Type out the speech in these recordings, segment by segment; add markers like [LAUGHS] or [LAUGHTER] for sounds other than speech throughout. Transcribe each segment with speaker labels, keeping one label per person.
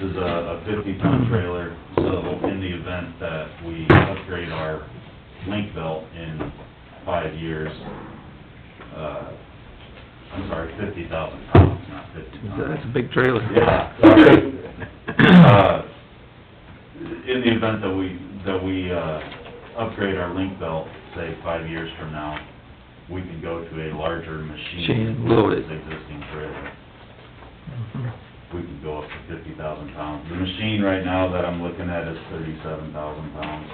Speaker 1: This is a fifty-ton trailer, so in the event that we upgrade our link belt in five years, uh, I'm sorry, fifty thousand pounds, not fifty
Speaker 2: That's a
Speaker 1: tons.
Speaker 2: big trailer.
Speaker 1: [LAUGHS] Yeah, sorry. Uh, In the event that we, that we, uh, upgrade our link belt, say, five years from now, we can go to a larger machine.
Speaker 2: Machine, load it.
Speaker 1: with this Existing trailer. we could go up to fifty thousand pounds. The machine right now that I'm looking at is thirty-seven thousand pounds,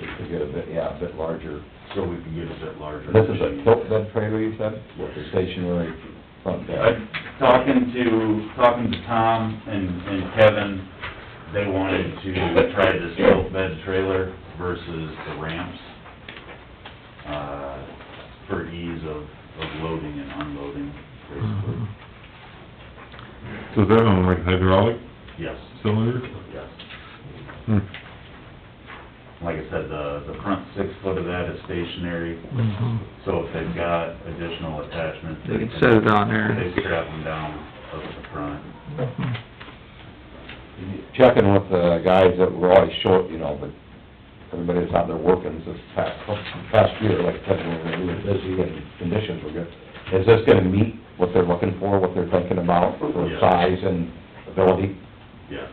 Speaker 3: It could get a bit, yeah, a bit larger.
Speaker 1: so we can get a bit larger.
Speaker 3: This is a
Speaker 1: machine.
Speaker 3: tilt bed trailer, you said, with the stationary front bed?
Speaker 1: I'm Talking to, talking to Tom and, and Kevin, they wanted to try this tilt bed trailer versus the ramps, uh, for ease of, of loading and unloading, basically.
Speaker 4: So is that on like hydraulic
Speaker 3: Mm-hmm.
Speaker 1: Yes,
Speaker 4: cylinder?
Speaker 1: yes.
Speaker 4: Hmm.
Speaker 1: Like I said, the, the front six foot of that is stationary,
Speaker 2: Mhm.
Speaker 1: So if they've got additional attachments.
Speaker 2: They can set it on there.
Speaker 1: They strap them down up at the front.
Speaker 2: Mhm.
Speaker 3: Checking with the guys that were always short, you know, but everybody's out there working this past, past year, like, I said, when we were busy and conditions were good. Is this gonna meet what they're looking for, what they're thinking about for
Speaker 1: Yeah.
Speaker 3: size and ability?
Speaker 1: Yes.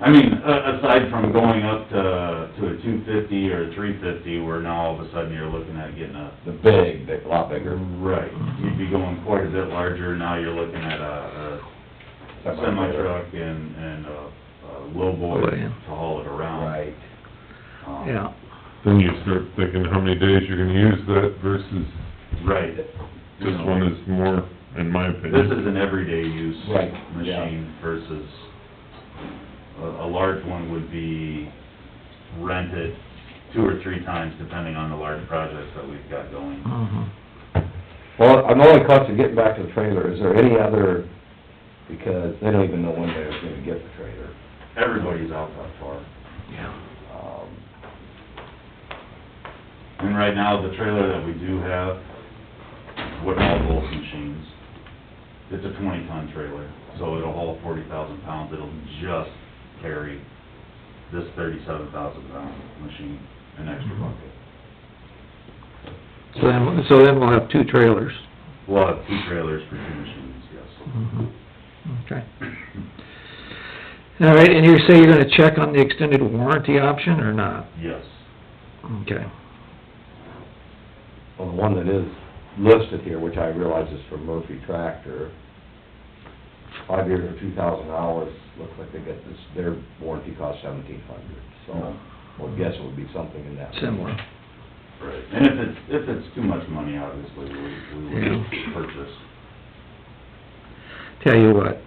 Speaker 1: I mean, a- aside from going up to, to a two fifty or a three fifty, where now all of a sudden you're looking at getting a.
Speaker 3: The big, they a lot bigger.
Speaker 1: Right. You'd be going quite a bit larger, now you're looking at a a semi truck and, and a a
Speaker 2: Oh,
Speaker 1: lowboy
Speaker 2: yeah.
Speaker 1: to haul it around.
Speaker 3: Right.
Speaker 1: Um,
Speaker 2: Yeah,
Speaker 4: Then you start thinking how many days you're gonna use that versus
Speaker 1: Right.
Speaker 4: this one is more, in my
Speaker 1: This
Speaker 4: opinion.
Speaker 1: is an everyday use
Speaker 3: Right, yeah.
Speaker 1: machine versus, a, a large one would be rented two or three times depending on the large projects that we've got going.
Speaker 2: mhm.
Speaker 3: Well, I'm only conscious of getting back to the trailer, is there any other, because they don't even know when they're gonna get the trailer.
Speaker 1: Everybody's out that far.
Speaker 2: yeah.
Speaker 3: Um,
Speaker 1: And right now, the trailer that we do have, with all those machines, it's a twenty ton trailer, so it'll haul forty thousand pounds, it'll just carry this thirty-seven thousand pound machine, an extra bucket.
Speaker 2: So then, so then we'll have two trailers.
Speaker 1: We'll have two trailers for two machines, yes.
Speaker 2: Mhm. Okay. All right, and you say you're gonna check on the extended warranty option or not?
Speaker 1: Yes,
Speaker 2: Okay.
Speaker 3: Well, the one that is listed here, which I realize is from Murphy Tractor, five years or two thousand hours, looks like they got this, their warranty cost seventeen hundred, so
Speaker 1: Um,
Speaker 3: I would guess it would be something in that. range.
Speaker 2: Similar.
Speaker 1: right. And if it's, if it's too much money, obviously, we, we would
Speaker 2: Yeah.
Speaker 1: purchase.
Speaker 2: Tell you what,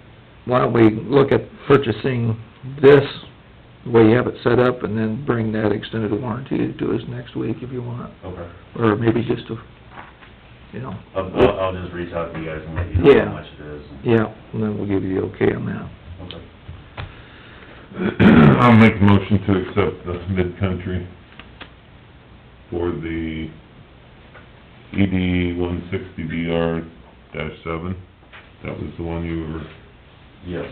Speaker 2: why don't we look at purchasing this, the way you have it set up, and then bring that extended warranty to us next week if you want,
Speaker 1: Okay.
Speaker 2: or maybe just a, you know,
Speaker 1: I'll, I'll- I'll just reach out to you guys and let you know
Speaker 2: Yeah.
Speaker 1: how much it is.
Speaker 2: yeah, and then we'll give you the okay on that.
Speaker 1: Okay.
Speaker 4: [CLEARS THROAT] I'll make a motion to accept the mid-country for the ED one sixty BR dash seven. That was the one you were,
Speaker 1: Yes.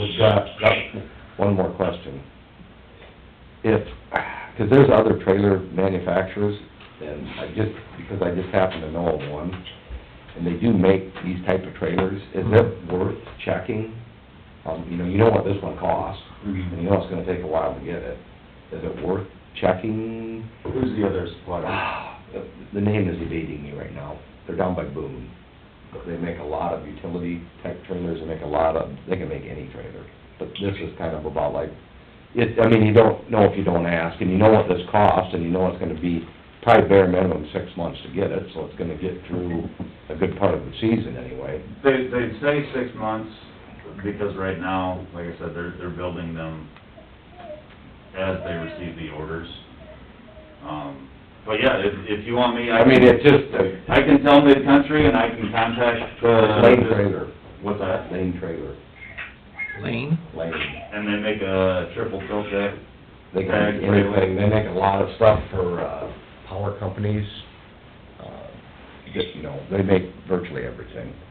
Speaker 3: We've got, got one more question. If, because there's other trailer manufacturers, and I just, because I just happen to know of one, and they do make these type of trailers, is it worth checking? Um, you know, you know what this one costs, and you know it's gonna take a while to get it. Is it worth checking?
Speaker 1: Who's the other supplier?
Speaker 3: Ah, The the name is evading me right now. They're down by Boone. They make a lot of utility type trailers, they make a lot of, they can make any trailer. But this is kind of about like, it, I mean, you don't know if you don't ask, and you know what this costs, and you know it's gonna be probably bare minimum six months to get it, so it's gonna get through a good part of the season anyway.
Speaker 1: They, they say six months, because right now, like I said, they're, they're building them as they receive the orders. Um, but yeah, if, if you want me, I
Speaker 3: I mean,
Speaker 1: can,
Speaker 3: it's just a
Speaker 1: I can tell mid-country and I can contact the...
Speaker 3: lane trailer,
Speaker 1: What's that?
Speaker 3: lane trailer,
Speaker 2: Lane?
Speaker 3: lane.
Speaker 1: And they make a triple tilt deck?
Speaker 3: They can make anything, they make a lot of stuff for, uh, power companies, uh, just, you know, they make virtually everything.